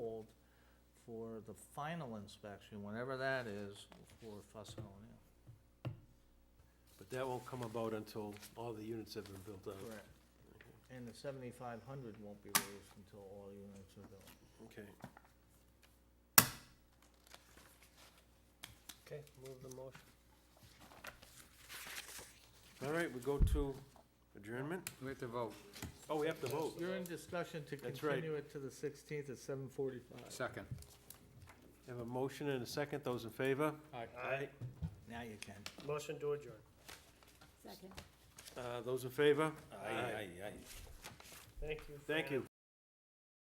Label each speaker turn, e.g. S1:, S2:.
S1: for the final inspection, whenever that is, for Fussin'
S2: But that won't come about until all the units have been built out.
S1: Correct. And the seventy-five hundred won't be raised until all units are built.
S2: Okay.
S3: Okay, move the motion.
S2: All right, we go to adjournment?
S4: We have to vote.
S2: Oh, we have to vote.
S1: You're in discussion to
S2: That's right.
S1: continue it to the sixteenth at seven forty-five.
S4: Second.
S2: Have a motion and a second. Those in favor?
S4: Aye.
S3: Aye.
S1: Now you can.
S3: Motion to adjourn.
S5: Second.
S2: Uh, Those in favor?
S3: Thank you.
S2: Thank
S3: for-
S2: you.